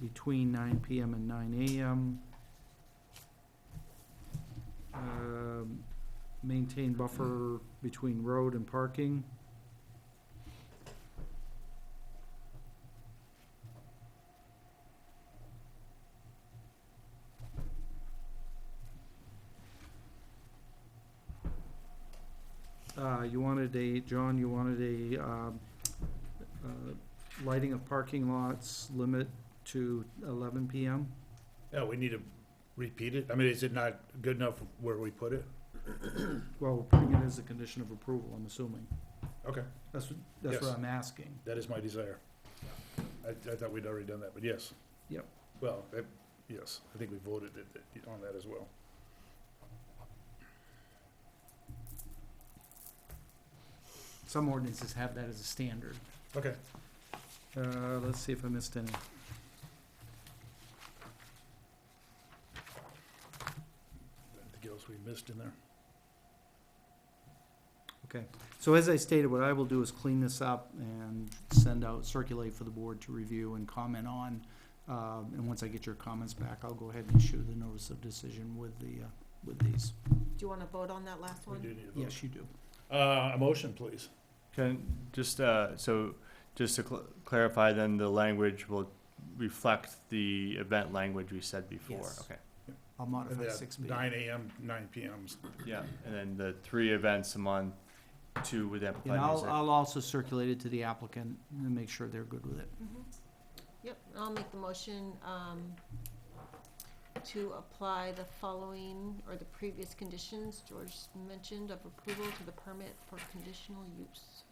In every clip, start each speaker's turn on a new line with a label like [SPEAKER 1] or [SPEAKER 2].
[SPEAKER 1] between nine PM and nine AM. Um, Maintain buffer between road and parking. Uh, you wanted a, John, you wanted a, um, uh, lighting of parking lots limit to eleven PM?
[SPEAKER 2] Yeah, we need to repeat it. I mean, is it not good enough where we put it?
[SPEAKER 1] Well, we're putting it as a condition of approval, I'm assuming.
[SPEAKER 2] Okay,
[SPEAKER 1] That's, what- that's what
[SPEAKER 2] Yes.
[SPEAKER 1] I'm asking.
[SPEAKER 2] that is my desire. I, I thought we'd already done that, but yes.
[SPEAKER 1] Yep.
[SPEAKER 2] Well, that, yes, I think we voted it- it- on that as well.
[SPEAKER 1] Some ordinances have that as a standard.
[SPEAKER 2] Okay,
[SPEAKER 1] Uh, let's see if I missed any.
[SPEAKER 2] anything else we missed in there?
[SPEAKER 1] So as I stated, what I will do is clean this up and send out, circulate for the board to review and comment on. Um, and once I get your comments back, I'll go ahead and issue the notice of decision with the, uh, with these.
[SPEAKER 3] Do you want to vote on that last
[SPEAKER 2] We
[SPEAKER 3] one?
[SPEAKER 2] do need to vote.
[SPEAKER 1] Yes, you do.
[SPEAKER 2] Uh, a motion, please.
[SPEAKER 4] Can, just, uh, so, just to cl- clarify, then the language will reflect the event language we said before?
[SPEAKER 1] Yes.
[SPEAKER 4] Okay,
[SPEAKER 1] I'll
[SPEAKER 2] And
[SPEAKER 1] modify
[SPEAKER 2] that
[SPEAKER 1] six B.
[SPEAKER 2] Nine AM, nine PMs.
[SPEAKER 4] yeah, and then the three events a month, two with
[SPEAKER 1] And
[SPEAKER 4] amplified
[SPEAKER 1] I'll,
[SPEAKER 4] music.
[SPEAKER 1] I'll also circulate it to the applicant and make sure they're good with it.
[SPEAKER 3] Mhm. Yep, I'll make the motion um, to apply the following or the previous conditions George mentioned of approval to the permit for conditional use.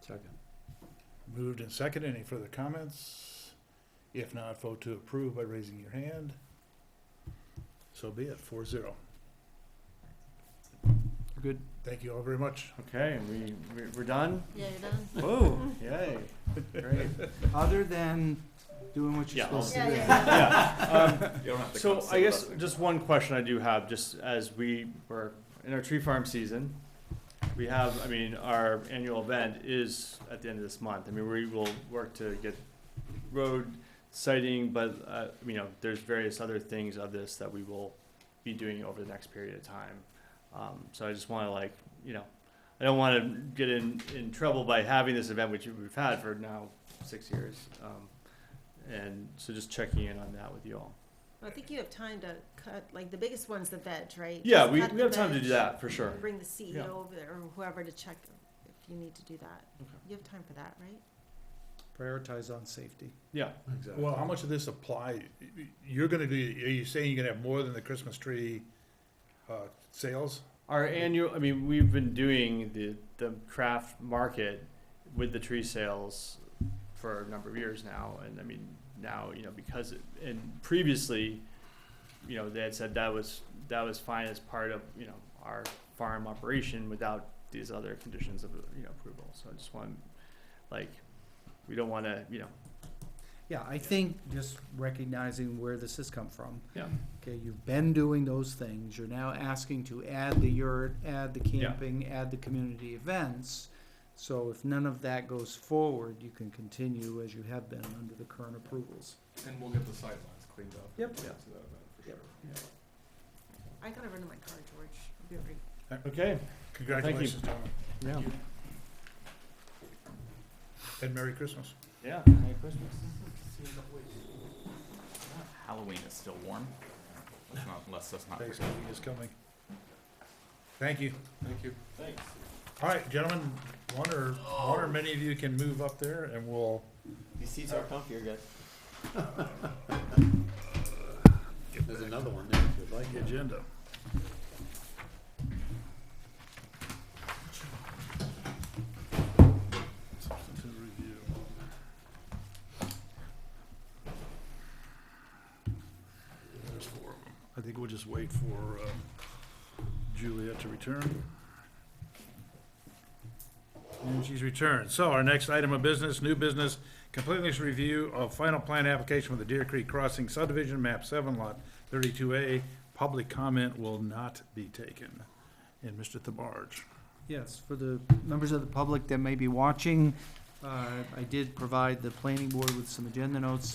[SPEAKER 4] Second.
[SPEAKER 2] Moved and seconded. Any further comments? If not, vote to approve by raising your hand. So be it, four zero.
[SPEAKER 1] Good?
[SPEAKER 2] Thank you all very much.
[SPEAKER 4] Okay, we, we- we're done?
[SPEAKER 3] Yeah, you're done?
[SPEAKER 4] Whoa, yay, great.
[SPEAKER 1] Other than doing what you're
[SPEAKER 4] Yeah, I'll-
[SPEAKER 1] supposed to
[SPEAKER 3] Yeah,
[SPEAKER 1] do.
[SPEAKER 3] yeah.
[SPEAKER 4] Yeah, um, So I guess just one question I do have, just as we were in our tree farm season, we have, I mean, our annual event is at the end of this month. I mean, we will work to get road sighting, but, uh, you know, there's various other things of this that we will be doing over the next period of time. Um, so I just wanna like, you know, I don't wanna get in, in trouble by having this event, which we've had for now six years. Um, and so just checking in on that with you all.
[SPEAKER 3] I think you have time to cut, like, the biggest one's the veg, right?
[SPEAKER 4] Yeah,
[SPEAKER 3] Just
[SPEAKER 4] we,
[SPEAKER 3] cut
[SPEAKER 4] we
[SPEAKER 3] the
[SPEAKER 4] have time to
[SPEAKER 3] veg
[SPEAKER 4] do that for sure.
[SPEAKER 3] and Bring the CEO
[SPEAKER 4] Yeah.
[SPEAKER 3] over there or whoever to check if you need to do that.
[SPEAKER 4] Okay.
[SPEAKER 3] You have time for that, right?
[SPEAKER 1] Prioritize on safety.
[SPEAKER 4] Yeah.
[SPEAKER 2] Well, how much of this apply, you're gonna be, are you saying you're gonna have more than the Christmas tree, uh, sales?
[SPEAKER 4] Our annual, I mean, we've been doing the, the craft market with the tree sales for a number of years now. And I mean, now, you know, because, it- and previously, you know, they had said that was, that was fine as part of, you know, our farm operation without these other conditions of, you know, approval. So I just want, like, we don't want to, you know,
[SPEAKER 1] Yeah, I think just recognizing where this has come from.
[SPEAKER 4] Yeah.
[SPEAKER 1] Okay, you've been doing those things, you're now asking to add the yurt, add the
[SPEAKER 4] Yeah.
[SPEAKER 1] camping, add the community events. So if none of that goes forward, you can continue as you have been under the current approvals.
[SPEAKER 5] And we'll get the sidelines cleaned up.
[SPEAKER 1] Yep.
[SPEAKER 5] To that event, for
[SPEAKER 1] Yep.
[SPEAKER 5] sure.
[SPEAKER 3] I gotta run to my car, George. I'll be right
[SPEAKER 4] okay.
[SPEAKER 2] Congratulations, gentlemen,
[SPEAKER 4] Yeah.
[SPEAKER 2] and Merry Christmas.
[SPEAKER 4] Yeah. Merry Christmas.
[SPEAKER 5] Halloween is still warm. Let's not, let's, let's not. forget.
[SPEAKER 2] Thanksgiving is coming. Thank you.
[SPEAKER 5] Thank you. Thanks.
[SPEAKER 2] All right, gentlemen, one or, one or many of you can move up there and we'll
[SPEAKER 6] These seats are comfier, guys. There's another one there if you'd like.
[SPEAKER 2] like the agenda. Substantive review. There's four of them. I think we'll just wait for um, Juliet to return. And she's returned. So our next item of business, new business, completeness review of final plan application for the Deer Creek Crossing subdivision, map seven lot thirty-two A. Public comment will not be taken. And Mr. Thabarge.
[SPEAKER 1] Yes, for the members of the public that may be watching, uh, I did provide the planning board with some agenda notes